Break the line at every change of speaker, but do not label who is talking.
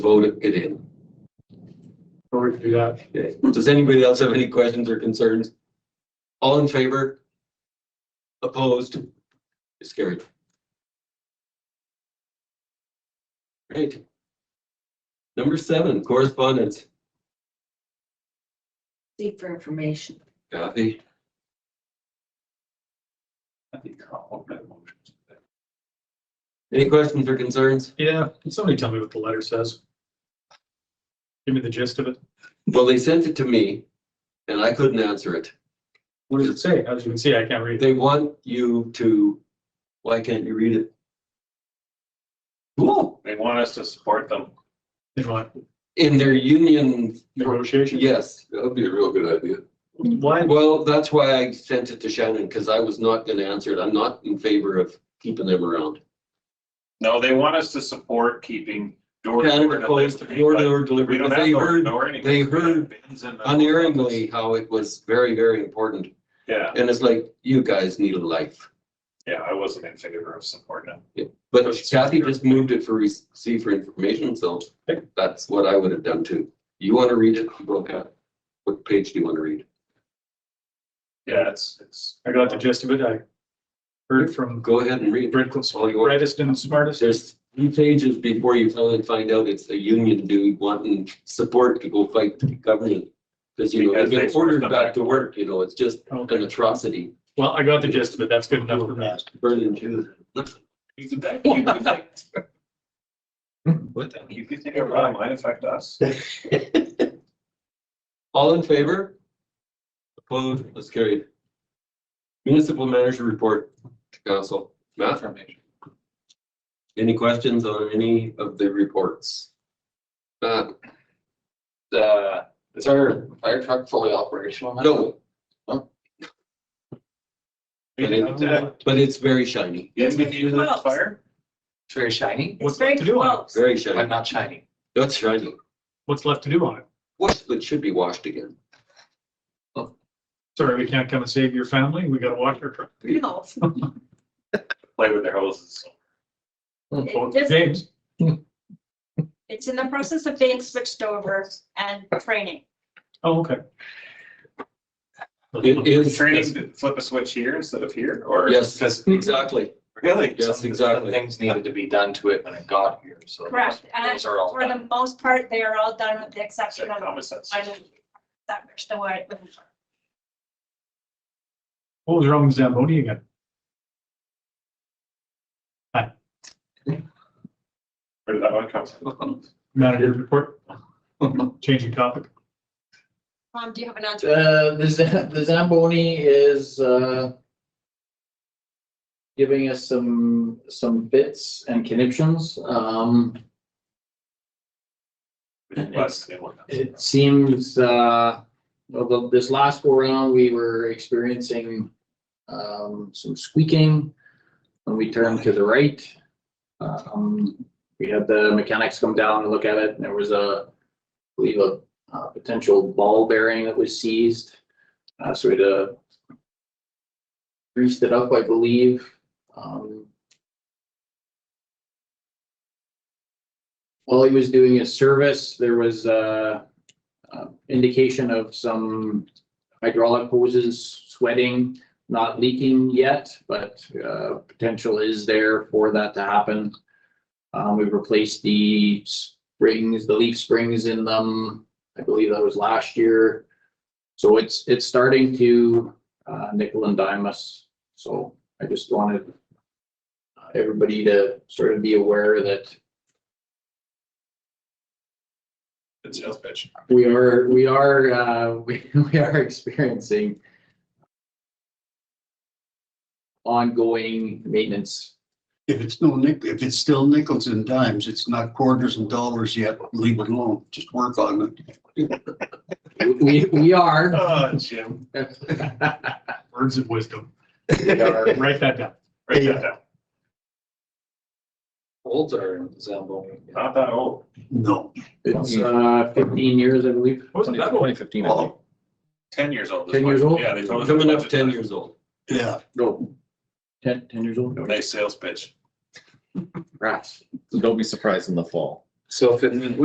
vote it in.
Sorry to do that.
Okay. Does anybody else have any questions or concerns? All in favor? Opposed? It's carried. Great. Number seven, correspondence.
Seek for information.
Kathy, any questions or concerns?
Yeah, can somebody tell me what the letter says? Give me the gist of it.
Well, they sent it to me and I couldn't answer it.
What does it say? As you can see, I can't read it.
They want you to, why can't you read it? Cool.
They want us to support them.
They want
In their union,
negotiation.
yes,
That would be a real good idea.
Why?
Well, that's why I sent it to Shannon, because I was not gonna answer it. I'm not in favor of keeping them around.
No, they want us to support keeping door to door
Canada closed door to
delivery.
door
but We
delivery,
don't
because
have
they
door to
heard
door anymore.
they heard
Bins in the-
unerringly how it was very, very important.
Yeah,
And it's like, you guys need a life.
yeah, I wasn't in favor of supporting them.
But Kathy just moved it for receive for information, so that's what I would have done too. You want to read it? Go ahead. What page do you want to read?
Yeah, it's, it's.
I got the gist of it. I heard it from
Go ahead and read.
Brittless,
All you want.
brightest and smartest.
There's three pages before you finally find out it's a union dude wanting support to go fight the government. Because you know, they've been
Because they-
ordered back to work, you know, it's just an
Okay.
atrocity.
Well, I got the gist of it. That's good enough for me.
Burden to.
You could think of it might affect us.
All in favor? Opposed, that's carried. Municipal manager report to council. Matt, any questions on any of the reports? Matt,
Uh, is our fire truck fully operational? now?
no,
Yes,
but it's very shiny,
we use it as fire.
It's very shiny,
What's
Very
left to do on it?
close.
very
but
shiny.
not shiny.
That's shiny.
What's left to do on it?
Washed, but should be washed again.
Sorry, we can't come and save your family. We gotta watch our truck.
No,
Play with their hoses.
Oh,
it just-
James,
it's in the process of being switched over and training.
oh, okay.
It is.
Training, to flip a switch here instead of here or?
Yes,
Because
exactly.
Really?
Yes,
some-
exactly.
some Things needed to be done to it when it got here, so.
Correct. And I-
Those are all
For the
done.
most part, they are all done with the exception of
Common sense.
I don't- that which the way.
What was wrong with Zamboni again?
Where did that one come from?
Manager report. Changing topic.
Tom, Um, do you have an answer?
Uh, the Zam- the Zamboni is, uh, giving us some, Um, some bits and connections. Um,
Plus, they want us.
it seems, uh, well, the- this last go round, we were experiencing, um, some squeaking when we turned to the right. Um, we had the mechanics come down and look at it and there was a, I believe a, uh potential ball bearing that was seized. Uh, so we had to greased it up, I believe. Um, While he was doing his service, there was uh uh, indication of some hydraulic hoses sweating, not leaking yet, but uh, potential is there for that to happen. Um, We've replaced the springs, the leaf springs in them. I believe that was last year. So it's, it's starting to uh, nickel and dime us. So I just wanted uh, everybody to sort of be aware that
It's just bitch.
we are, we are, uh, we, we are experiencing ongoing maintenance.
If it's no nick, if it's still nickels and dimes, it's not quarters and dollars yet, leave it alone, just work on it.
We, we are.
Oh, Jim,
Words of wisdom.
We are
Write that down.
write that down.
Olds are Zamboni.
Not that old.
No.
It's uh, fifteen years, I believe.
Wasn't that one?
fifteen.
Ten years old. is
10
what-
years old?
Yeah, they told us.
Coming up ten years old.
Yeah,
No. Ten, ten years old.
Nice sales pitch.
Rats.
Don't be surprised in the fall.
So if it